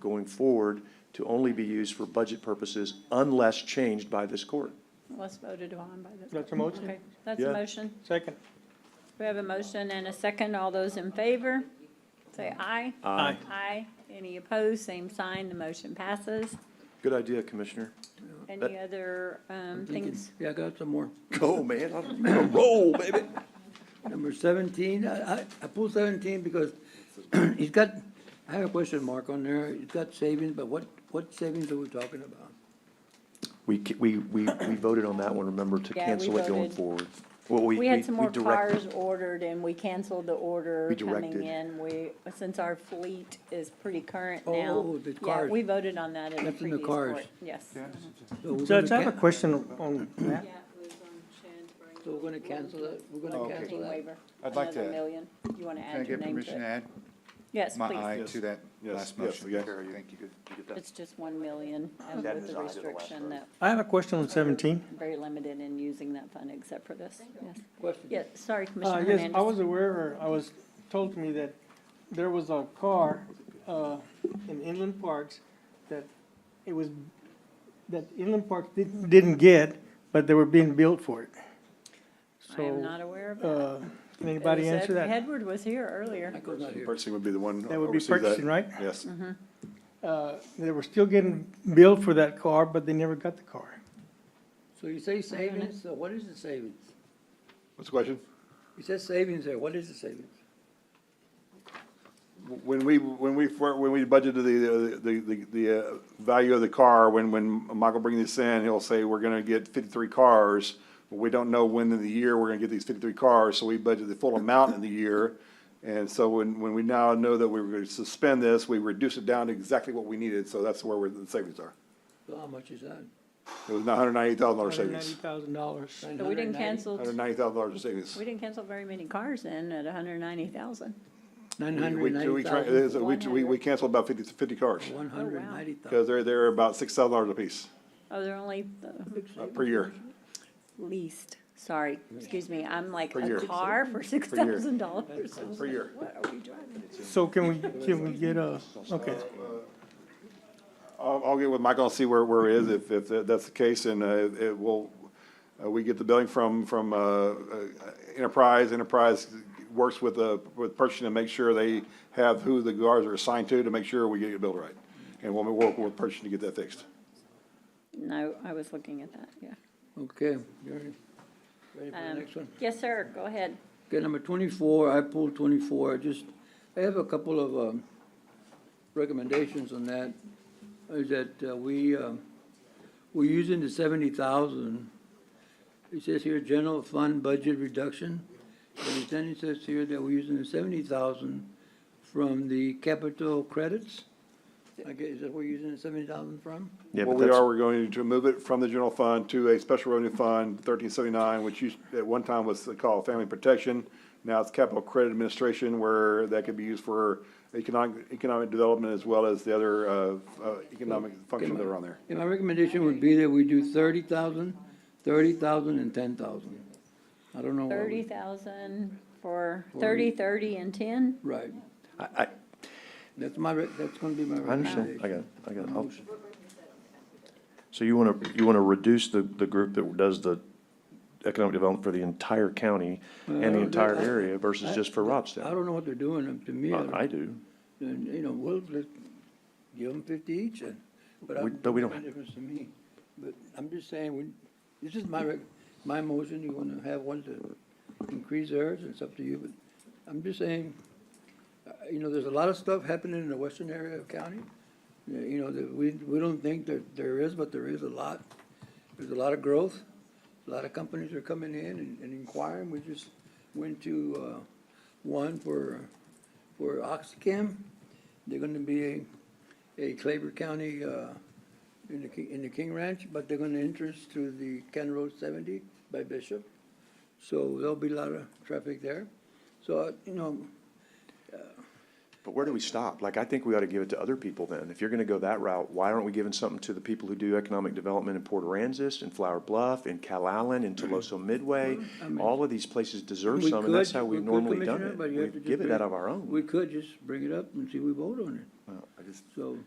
going forward to only be used for budget purposes unless changed by this court. was voted on by the. That's a motion. Okay, That's a Yeah. motion. Second. We have a motion and a second. All those in favor, say aye. Aye. Aye. Any opposed, same sign. The motion passes. Good idea, Commissioner. Any other um, things? Yeah, I got some more. Go, man. I'm gonna roll, baby. Number seventeen, I, I, I pulled seventeen because he's got, I have a question mark on there. He's got savings, but what, what savings are we talking about? We, ca- we, we, we voted on that one, remember, to Yeah, we cancel it going voted. forward. Well, we, We we had some more we direct- cars ordered and we canceled the order We coming directed. in. We, since our fleet is pretty current now. Oh, the Yeah, cars. we voted on that in the That's in the previous cars. court. Yes. So we're Judge, I gonna have a can- question on that. So we're gonna cancel it, we're Oh, gonna Okay. cancel that. Waiver, I'd like another to- million. You want to Can I add your get name permission to to it? add Yes, my please. eye to that Yes, last yes, motion? yes. Thank you. It's just 1 million and That with is the I did the last restriction time. that I have a question on seventeen. very limited in using that fund except for this. Yes. Question. Yes, sorry, Uh, Commissioner yes, I was Hernandez. aware, or I was told to me that there was a car, uh, in Inland Parks that it was, that Inland Parks didn't, didn't get, but they were being built for it. I am So, not aware of that. uh, can anybody It was answer Ed- that? Edward was here earlier. Michael's not here. Purchasing would be the one. That would be oversees that. purchasing, right? Yes. Mm-hmm. Uh, they were still getting billed for that car, but they never got the car. So you say savings, so what is the savings? What's the question? You said savings there, what is the savings? When we, when we, fir- when we budgeted the, the, the, the uh, value of the car, when, when Michael brings this in, he'll say, we're gonna get fifty-three cars. But We don't know when in the year we're gonna get these fifty-three cars, so we budgeted the full amount in the year. And so when, when we now know that we were gonna suspend this, we reduced it down to exactly what we needed, so that's where we're- the savings are. So how much is that? It was nine hundred ninety thousand dollar savings, $190,000. So we didn't cancel, hundred ninety thousand dollars in savings. we didn't cancel very many cars then at 190,000. Nine We- hundred we- and we ninety try- thousand, is- We, we, we canceled about 50 50 cars, one hundred and ninety because thousand. they're, they're about six thousand dollars apiece Oh, they're only the uh, per year. least, sorry, excuse me, I'm like Per a year. car for $6,000. Per year. What are we driving? So can we, can we get a, okay. I'll, I'll get with Michael and see where, where it is, if, if tha- that's the case, and, uh, it- it will, uh, we get the billing from, from, uh, uh, Enterprise, Enterprise works with, uh, with purchasing to make sure they have who the guards are assigned to, to make sure we get it billed right. And we'll work with purchasing to get that fixed. No, I was looking at that, yeah. Okay, you ready? Ready for the Um, next one? Yes, sir, go ahead. Okay, number twenty-four, I pulled twenty-four, I just, I have a couple of, um, recommendations on that. Is that, uh, we, um, we're using the seventy thousand. It says here, general fund budget reduction, and then it says here that we're using the seventy thousand from the capital credits. I guess, is that where you're using the seventy thousand from? Yeah, What but we that's- are, we're going to move it from the general fund to a special revenue fund, thirteen seventy-nine, which used, at one time was called family protection. Now it's capital credit administration, where that could be used for economic, economic development as well as the other, uh, uh, economic functions that are on there. Yeah, my recommendation would be that we do thirty thousand, thirty thousand, and ten thousand. I don't know. what we- 30,000 for 30, 30, and 10? Right. I, I, That's my, re- that's gonna be my I understand. recommendation. I got, it. I got. it. I'll- So you want to, you want to reduce the, the group that does the economic development for the entire county and the Uh, entire I- area versus just for I Robstown? don't know what they're doing, um, to me, I I I don't- do. and, you know, we'll, let give them fifty each, and, but We- I, but we don't doesn't make a difference to me. But I'm just saying, we, this is my, rec- my motion, you wanna have one to increase theirs, it's up to you, but I'm just saying, uh, you know, there's a lot of stuff happening in the western area of county, you know, you know, that we, we don't think that there is, but there is a lot. There's a lot of growth, a lot of companies are coming in and- and inquiring, we just went to, uh, one for, for Oxychem. They're gonna be a, a Claver County, uh, in the, Ki- in the King Ranch, but they're gonna interest through the Ken Road seventy by Bishop. So there'll be a lot of traffic there. So, uh, you know, But where do we stop? Like, I think we ought to give it to other people then. If you're going to go that route, why aren't we giving something to the people who do economic development in Port Aransas, in Flower Bluff, in Calallen, in Toloso Midway? All of these places deserve We some, and that's could- how we we've could, normally done Commissioner, it. but you We have to just give it bring- out of our own. we could just bring it up and see if we vote on it. So.